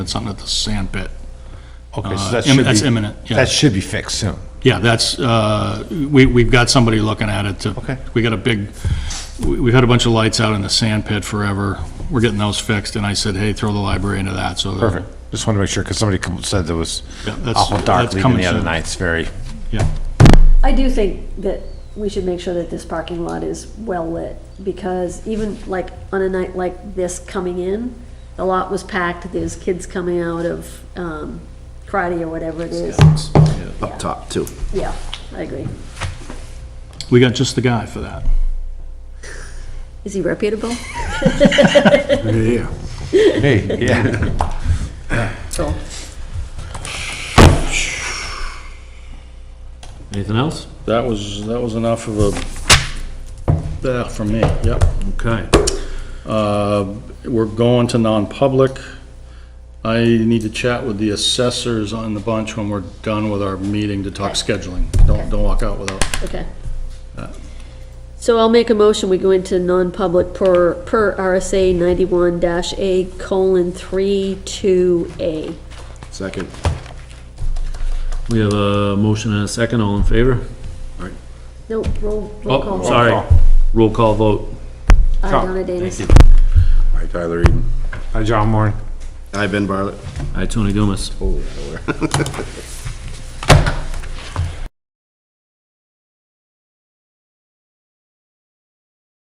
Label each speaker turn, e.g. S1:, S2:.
S1: It's something at the sand pit.
S2: Okay, so
S1: Uh,
S2: that
S1: im-
S2: should be...
S1: that's imminent, yeah.
S2: That should be fixed soon.
S1: Yeah, that's, uh, we, we've got somebody looking at it to.
S2: Okay.
S1: We got a big, we- we've had a bunch of lights out in the sand pit forever. We're getting those fixed, and I said, hey, throw the library into that, so. they're-
S2: Perfect. Just want to make sure, because somebody com- said there was
S1: Yeah, that's-
S2: awful
S1: that's
S2: dark leaving
S1: coming
S2: the other
S1: soon.
S2: night. It's very,
S1: Yeah,
S3: I do think that we should make sure that this parking lot is well-lit, because even like on a night like this coming in, the lot was packed, there's kids coming out of um, karate or whatever it is.
S4: up top, too.
S3: Yeah, I agree.
S1: we got just the guy for that.
S3: Is he reputable?
S4: Yeah.
S2: hey, yeah.
S3: So,
S5: Anything else?
S1: That was, that was enough of a, that for me, yep.
S5: Okay.
S1: Uh, We're going to non-public. I need to chat with the assessors on the bunch when we're done with our meeting to talk scheduling. Don't, don't walk out without.
S3: okay.
S5: Uh.
S3: So I'll make a motion, we go into non-public per, per RSA ninety-one dash A colon three two A.
S4: Second.
S5: We have a motion and a second. All in favor?
S3: No, roll, roll
S5: Oh,
S3: call.
S5: sorry. Roll call vote.
S3: Aye, Donna Danus.
S4: Hi, Tyler Eden.
S2: Hi, John Moore.
S4: Hi, Ben Barlett.
S5: Aye, Tony Dumas.
S4: Holy, I don't know where.